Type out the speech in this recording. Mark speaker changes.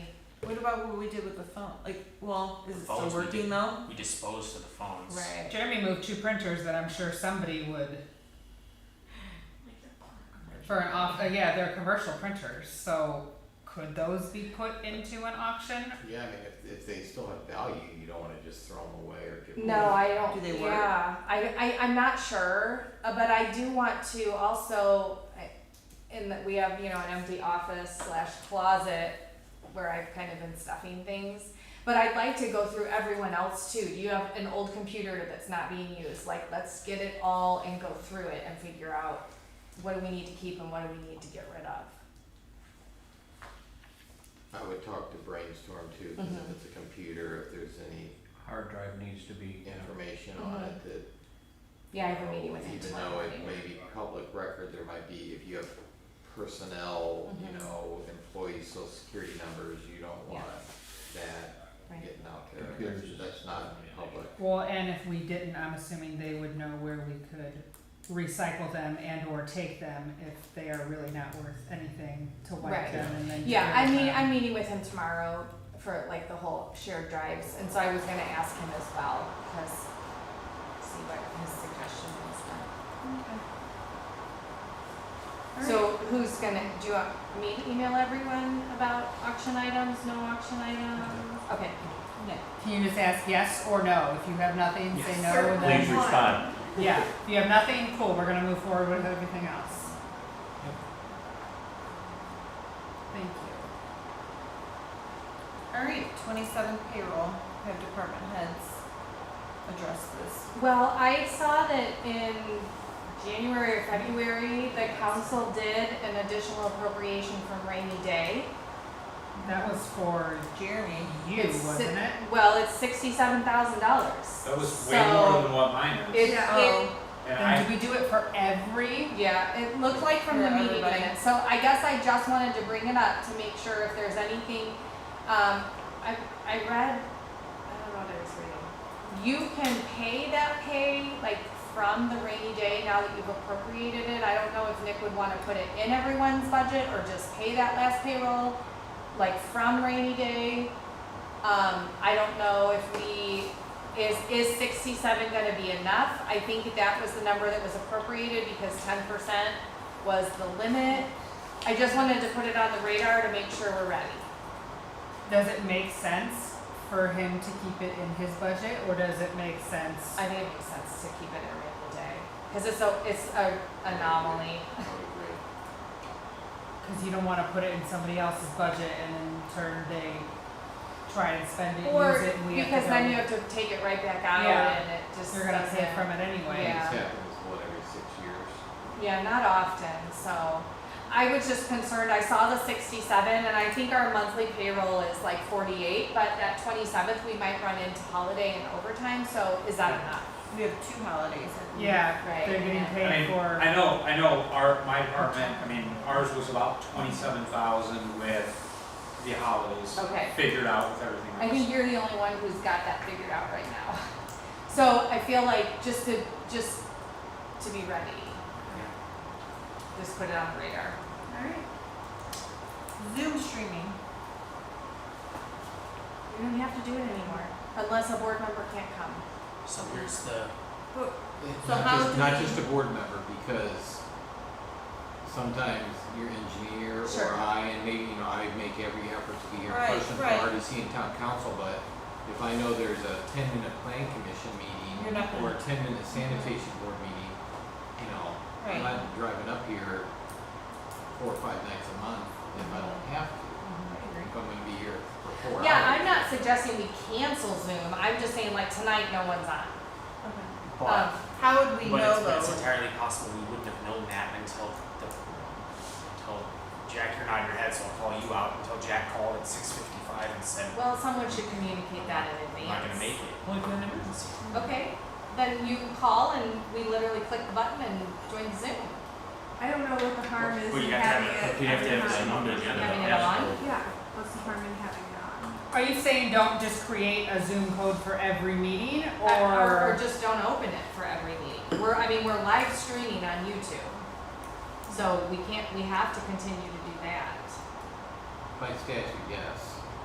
Speaker 1: about what we did with the phone? Like, well, is
Speaker 2: The
Speaker 1: it still
Speaker 2: phones we
Speaker 1: working
Speaker 2: did.
Speaker 1: though?
Speaker 2: We disposed of the phones.
Speaker 1: Right.
Speaker 3: Jeremy moved two printers that I'm sure somebody would for an off. Uh, yeah, they're commercial printers, so could those be put into an auction?
Speaker 4: Yeah, I mean, if, if they still have value, you don't wanna just throw them away or give them.
Speaker 5: No, I don't.
Speaker 1: Do they work?
Speaker 5: yeah, I, I, I'm not sure, uh, but I do want to also, I- in that we have, you know, an empty office slash closet where I've kind of been stuffing things. But I'd like to go through everyone else too. Do you have an old computer that's not being used? Like, let's get it all and go through it and figure out what do we need to keep and what do we need to get rid of.
Speaker 4: I would talk to Brainstorm too, cause
Speaker 5: Mhm.
Speaker 4: if it's a computer, if there's any
Speaker 6: Hard drive needs to be,
Speaker 4: information on it that
Speaker 5: Mm-hmm. Yeah, I have a meeting with him
Speaker 4: Even
Speaker 5: tomorrow
Speaker 4: though it
Speaker 5: morning.
Speaker 4: may be public record, there might be, if you have personnel, you
Speaker 5: Mhm.
Speaker 4: know, employee social security numbers, you don't
Speaker 5: Yeah.
Speaker 4: want that
Speaker 5: Right.
Speaker 4: getting out there.
Speaker 6: Computers is-
Speaker 4: That's- That's not public.
Speaker 3: Well, and if we didn't, I'm assuming they would know where we could recycle them and or take them if they are really not worth anything to
Speaker 5: Right.
Speaker 3: wipe them and then. get
Speaker 5: Yeah,
Speaker 3: rid
Speaker 5: I
Speaker 3: of
Speaker 5: mean,
Speaker 3: them.
Speaker 5: I'm meeting with him tomorrow for like the whole shared drives, and so I was gonna ask him as well, because see what his suggestion was. but- So who's gonna, do you want me to email everyone about auction items, no auction items? Okay,
Speaker 3: Yeah. Can you just ask yes or no? If you have nothing, say no, and
Speaker 6: please
Speaker 3: then,
Speaker 6: respond.
Speaker 3: yeah, if you have nothing, cool, we're gonna move forward with everything else. Thank you.
Speaker 1: All right, twenty-seven payroll. Have department heads address this.
Speaker 5: well, I saw that in January or February, the council did an additional appropriation from rainy day.
Speaker 3: That was for
Speaker 1: Jeremy.
Speaker 3: you,
Speaker 5: It's si-
Speaker 3: wasn't it?
Speaker 5: Well, it's sixty-seven thousand dollars.
Speaker 7: That was way more than what mine
Speaker 5: It,
Speaker 7: is.
Speaker 3: Yeah.
Speaker 1: Oh,
Speaker 5: it,
Speaker 7: And
Speaker 3: Then
Speaker 7: I,
Speaker 3: do we do it for every?
Speaker 5: yeah, it looked like from the
Speaker 1: For
Speaker 5: meeting
Speaker 1: everybody.
Speaker 5: minutes, so I guess I just wanted to bring it up to make sure if there's anything, um, I, I read, I don't know what I was reading. You can pay that pay, like, from the rainy day now that you've appropriated it, I don't know if Nick would wanna put it in everyone's budget or just pay that last payroll, like, from rainy day. Um, I don't know if we, is, is sixty-seven gonna be enough? I think that was the number that was appropriated because ten percent was the limit. I just wanted to put it on the radar to make sure we're ready.
Speaker 3: Does it make sense for him to keep it in his budget, or does it make sense?
Speaker 5: I think it makes sense to keep it every other day, cause it's a, it's a anomaly.
Speaker 4: I would agree.
Speaker 3: Because you don't want to put it in somebody else's budget and in turn they try and spend it,
Speaker 5: Or,
Speaker 3: use it, and we have
Speaker 5: because
Speaker 3: to
Speaker 5: then you
Speaker 3: go.
Speaker 5: have to take it right back out
Speaker 3: Yeah.
Speaker 5: and it just
Speaker 3: You're gonna pay
Speaker 5: doesn't-
Speaker 3: from it anyway.
Speaker 5: Yeah.
Speaker 4: This happens, what, every six years?
Speaker 5: Yeah, not often, so I was just concerned, I saw the sixty-seven and I think our monthly payroll is like forty-eight, but that twenty-seventh, we might run into holiday and overtime, so is that enough?
Speaker 1: We have two holidays. I think.
Speaker 3: Yeah,
Speaker 5: Right,
Speaker 3: they're getting
Speaker 5: yeah.
Speaker 3: paid
Speaker 7: I mean,
Speaker 3: for.
Speaker 7: I know, I know, our, my apartment, I mean, ours was about twenty-seven thousand with the holidays.
Speaker 5: Okay.
Speaker 7: Figured out with everything else.
Speaker 5: I think you're the only one who's got that figured out right now. So I feel like just to, just to be ready, just put it on the radar.
Speaker 1: All right. Zoom streaming.
Speaker 5: We don't have to do it anymore, unless a board member can't come.
Speaker 2: So here's the
Speaker 4: It's
Speaker 1: So
Speaker 4: not
Speaker 1: how
Speaker 4: just,
Speaker 1: do
Speaker 4: not
Speaker 1: we-
Speaker 4: just a board member, because sometimes your engineer
Speaker 5: Sure.
Speaker 4: or I, and maybe, you know, I make every effort to be here in
Speaker 1: Right,
Speaker 4: person for
Speaker 1: right.
Speaker 4: RDC and town council, but if I know there's a ten minute plan commission
Speaker 1: You're
Speaker 4: meeting
Speaker 1: not gonna-
Speaker 4: or a ten minute sanitation board meeting, you know, I'm
Speaker 1: Right.
Speaker 4: not driving up here four or five nights a month if I don't have to.
Speaker 1: Mm-hmm.
Speaker 4: If I'm gonna be here for four hours.
Speaker 5: Yeah, I'm not suggesting we cancel Zoom, I'm just saying like tonight, no one's on.
Speaker 1: Okay.
Speaker 2: but
Speaker 5: Um,
Speaker 1: How would
Speaker 2: but
Speaker 1: we
Speaker 2: it's,
Speaker 1: know
Speaker 2: but it's
Speaker 1: though?
Speaker 2: entirely possible we wouldn't have known that until the until Jack, you're nodding your head, so I'll call you out until Jack called at six fifty five and said,
Speaker 5: Well, someone should communicate that in
Speaker 2: I'm
Speaker 5: advance.
Speaker 2: not gonna make it. Well, if you had an emergency.
Speaker 5: Okay, then you call and we literally click the button and join Zoom.
Speaker 8: I don't know what the harm is
Speaker 2: Well,
Speaker 8: in
Speaker 2: you have to have
Speaker 8: having
Speaker 2: it-
Speaker 8: it.
Speaker 2: you have to have
Speaker 8: every
Speaker 2: it
Speaker 8: time.
Speaker 2: on the agenda.
Speaker 5: Having it
Speaker 2: Yeah.
Speaker 5: on?
Speaker 8: Yeah, what's the harm in having it on?
Speaker 3: Are you saying don't just create a Zoom code for every meeting, or?
Speaker 5: Uh, Or, or just don't open it for every meeting. We're, I mean, we're live streaming on YouTube. So we can't, we have to continue to do that.
Speaker 4: By statute, yes.